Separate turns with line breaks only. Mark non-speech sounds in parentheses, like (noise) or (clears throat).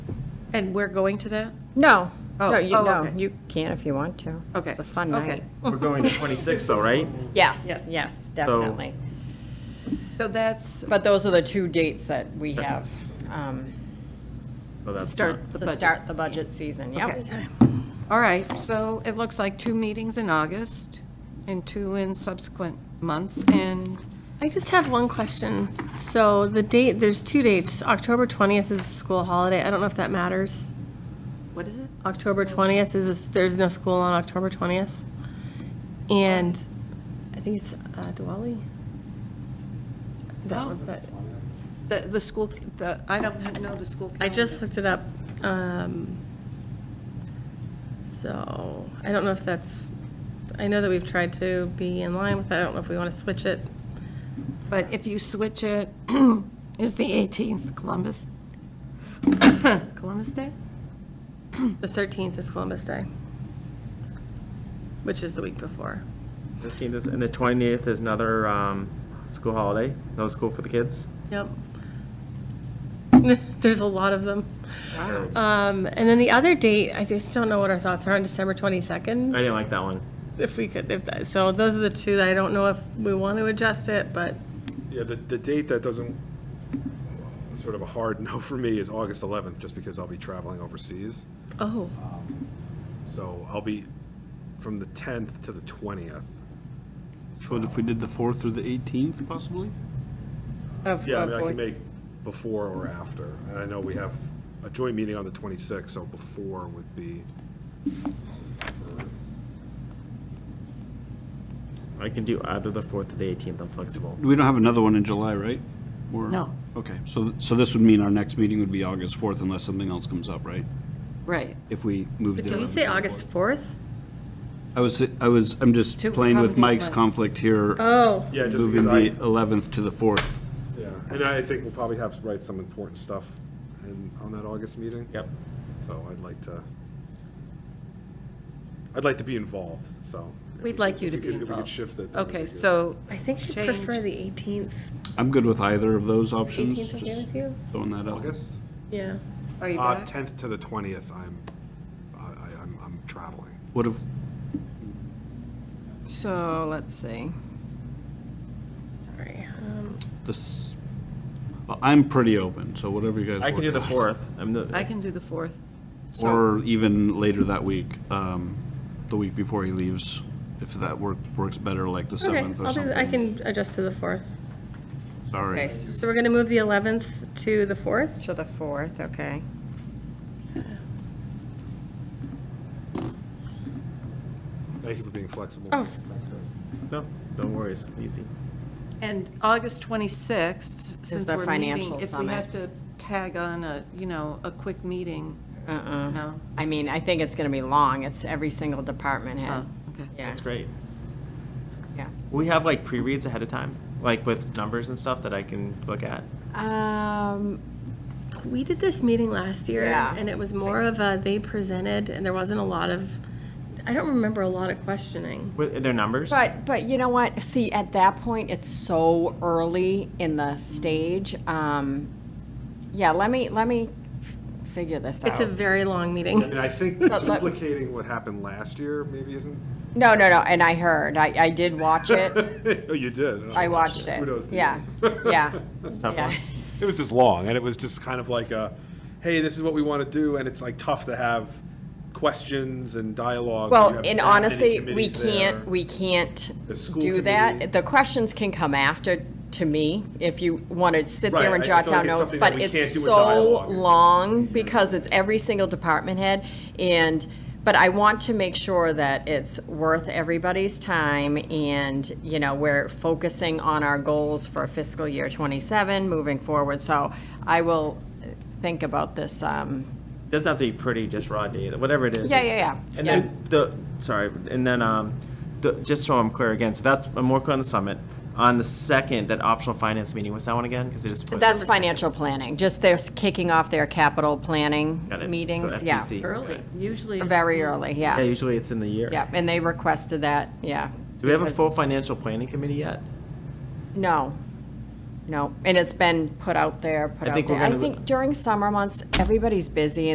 And we're going to that?
No,
Oh,
no, you,
oh,
no,
okay.
you can if you want to.
Okay,
It's a fun
okay.
night.
We're going to 26 though, right?
Yes,
Yes.
yes, definitely.
So that's,
But those are the two dates that we have um,
So that's
Start.
not-
The
to
budget.
start the budget season, yep.
okay. All right, so it looks like two meetings in August and two in subsequent months, and
I just have one question. So the date, there's two dates. October 20th is a school holiday. I don't know if that matters.
what is it?
October 20th is, a s- there's no school on October 20th. And I think it's uh, Diwali? That one, but
The, the school, the, I don't know the school calendar.
I just looked it up. Um, So I don't know if that's, I know that we've tried to be in line with that. I don't know if we want to switch it.
But if you switch it, (clears throat) is the 18th Columbus? (coughs) Columbus Day?
The 13th is Columbus Day, which is the week before.
15th is- And the 20th is another um, school holiday, no school for the kids.
Yep. (laughs) There's a lot of them.
Or-
Um, and then the other date, I just don't know what our thoughts are on December
I
22nd,
didn't like that one.
if we could, if that, so those are the two that I don't know if we want to adjust it, but
Yeah, the, the date that doesn't, sort of a hard (laughs) no for me is August 11th, just because I'll be traveling overseas.
oh,
So I'll be from the 10th to the 20th.
So if we did the 4th through the 18th possibly?
Of-
Yeah, I
of
mean, I
what-
can make before or after. And I know we have a joint meeting on the 26th, so before would be,
I can do either the 4th or the 18th, I'm flexible.
We don't have another one in July, right? Or-
No.
Okay, so, so this would mean our next meeting would be August 4th unless something else comes up, right?
Right.
If we moved it.
did you say August 4th?
I was, I was, I'm just
To
playing with
accommodate
Mike's
Mike.
conflict here,
Oh,
yeah, just
moving
because I,
the 11th to the 4th.
yeah. And I think we'll probably have, write some important stuff in, on that August meeting.
Yep.
So I'd like to, I'd like to be involved, so. if
We'd
we
like
could-
you
if
to
we
be
could- If we
involved.
could shift it. that would
Okay,
be good.
so
I think I
Change.
prefer the 18th.
I'm good with either of those options,
18th okay
just
with you?
throwing that out.
August?
Yeah.
Are you
Uh,
back?
10th to the 20th, I'm, I, I- I'm, I'm traveling.
What if,
So, let's see.
Sorry. Um,
this, well, I'm pretty open, so whatever you guys.
I can do
work
the
out.
4th. I'm the,
I can do the 4th.
Or even later that week, um, the week before he leaves, if that work, works better, like the
Okay,
7th or
I'll do,
something.
I can adjust to the 4th.
Sorry.
Okay,
So we're going to move the 11th to the 4th?
So the 4th, okay.
Thank you for being flexible.
Oh.
Thanks, guys.
no, no worries, it's easy.
And August 26th, since
the
we're
financial
meeting, if we
summit.
have to tag on a, you know, a quick meeting,
Uh-uh.
no?
I mean, I think it's going to be long. It's every single department head.
Oh, okay.
Yeah,
That's great.
yeah.
We have like pre-reads ahead of time, like with numbers and stuff that I can look at.
Um,
We did this meeting last year,
Yeah.
and it was more of a, they presented, and there wasn't a lot of, I don't remember a lot of questioning.
With, are there numbers?
But, but you know what, see, at that point, it's so early in the stage. Um, yeah, let me, let me f- figure this
It's a
out.
very long meeting.
And I think
let-
duplicating what happened last year maybe isn't, (laughs)
No, no, no, and I heard, I, I did watch it,
oh, you did. Oh, (laughs)
I watched it.
Kudos to you.
Yeah,
(laughs)
yeah.
Tough
yeah.
one.
It was just long, and it was just kind of like a, hey, this is what we want to do, and it's like tough to have questions and dialogue. You
Well,
have
and
that many
honestly, we
committees
can't,
there.
we can't
The school
do
committee.
that. The questions can come after, to me, if you want to sit there and
Right, I- I
jot
feel like
down notes,
it's something that
but
we can't
it's
do with
so
dialogue.
long because it's every single department head. And, but I want to make sure that it's worth everybody's time and, you know, we're focusing on our goals for fiscal year 27 moving forward. So I will think about this, um,
Doesn't have to be pretty, just raw data, whatever it is.
Yeah,
it's-
yeah, yeah,
And
yeah.
then the, sorry, and then, um, the, just so I'm clear again, so that's, I'm working on the summit. On the second, that optional finance meeting, what's that one again? Because it just. put-
That's financial planning, just they're kicking off their capital planning
Got it. So
meetings, yeah.
FPC.
Early, usually.
Very early,
Yeah,
yeah,
usually it's in the year.
yeah, and they requested that, yeah.
Do we have a
because-
full financial planning committee yet?
No, no, and it's been put out there, put
I
out
think we're
there. I
gonna-
think during summer months, everybody's busy